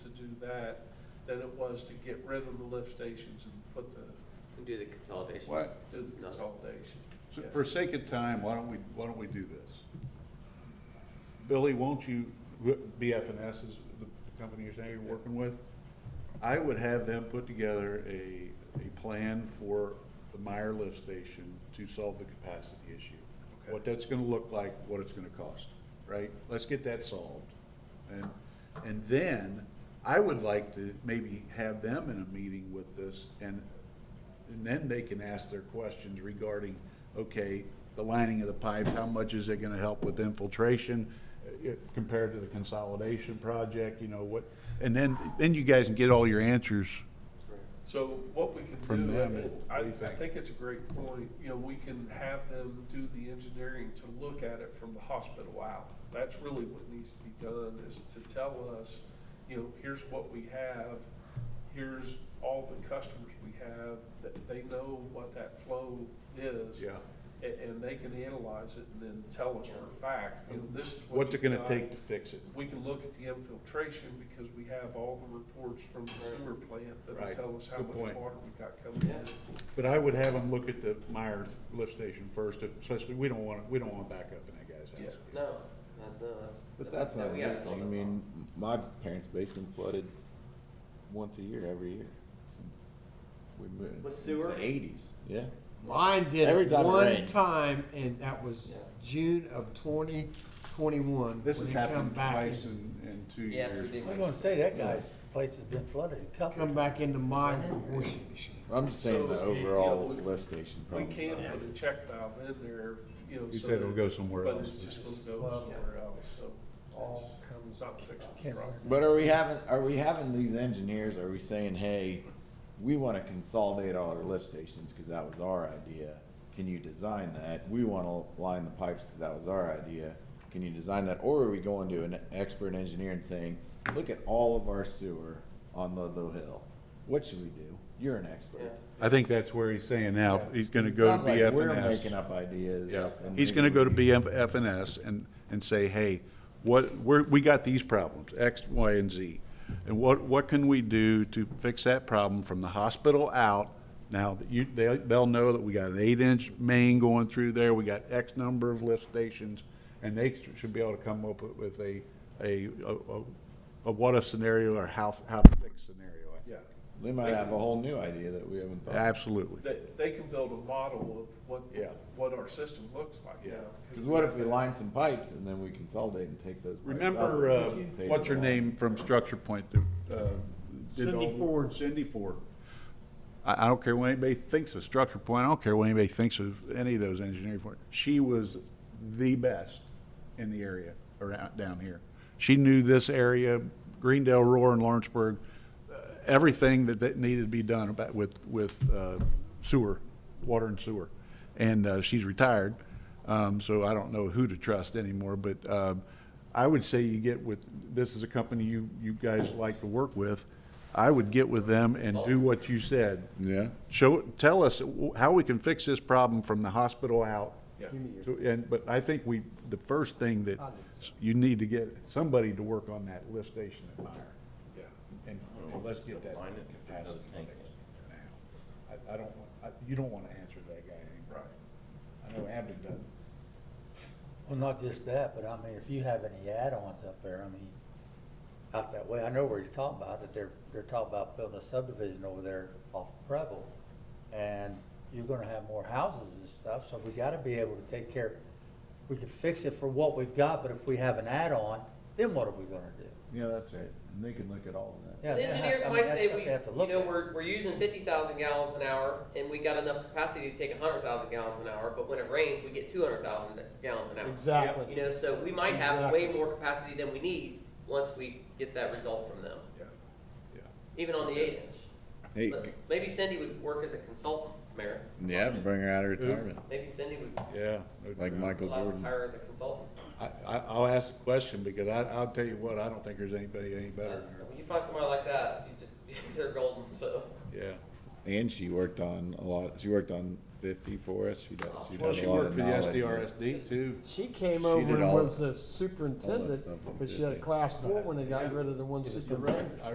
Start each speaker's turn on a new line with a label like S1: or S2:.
S1: that than it was to get rid of the lift stations and put the,
S2: Can do the consolidation.
S3: Why,
S1: do
S2: Just
S1: the
S2: not-
S1: consolidation.
S3: so
S1: Yeah.
S3: for sake of time, why don't we, why don't we do this? Billy, won't you, BFNS is the company you're saying you're working with? I would have them put together a, a plan for the Meyer lift station to solve the capacity issue.
S1: Okay.
S3: What that's gonna look like, what it's gonna cost, right? Let's get that solved. And, and then, I would like to maybe have them in a meeting with this, and, and then they can ask their questions regarding, okay, the lining of the pipes, how much is it gonna help with infiltration uh, compared to the consolidation project, you know, what, and then, then you guys can get all your answers.
S1: So what we can
S3: From
S1: do,
S3: them,
S1: and
S3: what
S1: I,
S3: do you
S1: I
S3: think?
S1: think it's a great point, you know, we can have them do the engineering to look at it from the hospital out. That's really what needs to be done, is to tell us, you know, here's what we have, here's all the customers we have, that they know what that flow is. a- And, they can analyze it and then tell us for a fact, you know, this is what.
S3: What's it
S1: you've
S3: gonna
S1: got.
S3: take to fix it?
S1: We can look at the infiltration because we have all the reports from the sewer plant that will
S3: Right.
S1: tell us how
S3: Good
S1: much
S3: point.
S1: water we got coming in.
S3: But I would have them look at the Meyer lift station first, especially, we don't want, we don't want backup in that guy's house.
S2: No, that's, no, that's.
S4: But that's
S2: no,
S4: not
S2: we gotta
S4: amazing.
S2: solve
S4: I
S2: that
S4: mean, my parents' basement flooded once a year, every year since we moved.
S2: With sewer?
S4: Eighties, yeah.
S5: Mine did
S4: Every
S5: it
S4: time it
S5: one
S4: rained.
S5: time, and that was
S2: Yeah.
S5: June of twenty twenty-one.
S3: This has happened twice in, in two
S2: problem. Yeah, it's
S3: years.
S6: I was
S2: ridiculous.
S6: gonna say, that guy's place has been flooded a couple.
S5: Come back into my washing machine.
S4: I'm just saying the
S1: So, you know,
S4: overall
S1: we-
S4: lift station
S1: We
S4: problem.
S1: can put a check valve in there, you know.
S3: You
S1: so
S3: said it'll
S1: that-
S3: go somewhere
S1: But
S3: else.
S1: it's just gonna go
S5: Well,
S1: somewhere else, so
S5: All
S1: it's
S5: comes
S1: not fixing the problem.
S4: But are we having, are we having these engineers, are we saying, hey, we wanna consolidate all our lift stations, cause that was our idea. Can you design that? We wanna line the pipes, cause that was our idea. Can you design that? Or are we going to an expert engineer and saying, look at all of our sewer on Ludlow Hill? What should we do? You're an
S2: Yeah.
S4: expert.
S3: I think that's where he's saying now, he's gonna go to
S4: Sounds like We're making
S3: BFNS.
S4: up ideas.
S3: Yeah,
S4: and
S3: he's
S4: we
S3: gonna go to
S4: would be-
S3: BFNS and, and say, hey, what, we're, we got these problems, X, Y, and Z. And what, what can we do to fix that problem from the hospital out? Now, that you, they, they'll know that we got an eight-inch main going through there, we got X number of lift stations, and they should be able to come up with a, a, a, a- a what-if scenario or how, how to fix scenario. I think.
S1: Yeah,
S4: They might have a whole new idea that we haven't thought. of.
S3: Absolutely.
S1: they, they can build a model of what,
S3: Yeah.
S1: what our system looks like
S3: Yeah.
S1: now.
S4: Cause what if we line some pipes and then we consolidate and take those pipes out?
S3: Remember, uh,
S4: Take
S3: what's her
S4: them out.
S3: name from Structure Point? that, uh, did
S5: Cindy
S3: all-
S5: Ford.
S3: Cindy Ford. I, I don't care what anybody thinks of Structure Point, I don't care what anybody thinks of any of those engineering firms. She was the best in the area around, down here. She knew this area, Greendale, Roar, and Lawrenceburg, uh, everything that, that needed to be done about, with, with uh, sewer, water and sewer. And uh, she's retired, um, so I don't know who to trust anymore, but um, I would say you get with, this is a company you, you guys like to work with. I would get with them and do what you said.
S4: Yeah.
S3: Show, tell us w- how we can fix this problem from the hospital out.
S1: Yeah.
S3: So, And, but I think we, the first thing that
S5: I think so.
S3: you need to get somebody to work on that lift station at Meyer.
S1: Yeah.
S3: And and let's get that capacity fixed now. I, I don't, want- I, you don't wanna answer that guy anymore.
S1: Right.
S3: I know Abden doesn't.
S6: Well, not just that, but I mean, if you have any add-ons up there, I mean, out that way, I know where he's talking about, that they're, they're talking about building a subdivision over there off Preble. And you're gonna have more houses and stuff, so we gotta be able to take care, we can fix it for what we've got, but if we have an add-on, then what are we gonna do?
S4: Yeah, that's right. And they can look at all of that.
S6: Yeah,
S2: The
S6: they have-
S2: engineers
S6: I mean,
S2: might
S6: that's
S2: say,
S6: what
S2: we,
S6: they have to
S2: you
S6: look
S2: know,
S6: at.
S2: we're, we're using fifty thousand gallons an hour, and we got enough capacity to take hundred thousand gallons an hour, but when it rains, we get two hundred thousand gallons an hour. You know, so we might have way
S5: Exactly.
S2: more capacity than we need once we get that result from them,
S1: Yeah.
S2: even on the eight inch.
S4: Hey,
S2: But Maybe Cindy would work as a consultant, Mayor.
S4: yeah, bring her out of retirement,
S2: Maybe Cindy would
S3: Yeah.
S4: like Michael
S2: allow us to
S4: Jordan.
S2: hire as a consultant.
S3: I, I, I'll ask the question because I, I'll tell you what, I don't think there's anybody any
S2: Uh,
S3: better
S2: When you find somebody like that, you just, you're golden, so.
S3: than her. Yeah.
S4: And she worked on a lot, she worked on fifty for us. She does, she
S3: Well,
S4: does
S3: she
S4: a lot
S3: worked
S4: of
S3: for the
S4: knowledge.
S3: SDRSD too.
S5: She came
S4: She
S5: over
S4: did
S5: and
S4: all-
S5: was the
S4: all that
S5: superintendent,
S4: stuff on
S5: because she had a
S4: Tuesday.
S5: class four when they got rid of the one superintendent.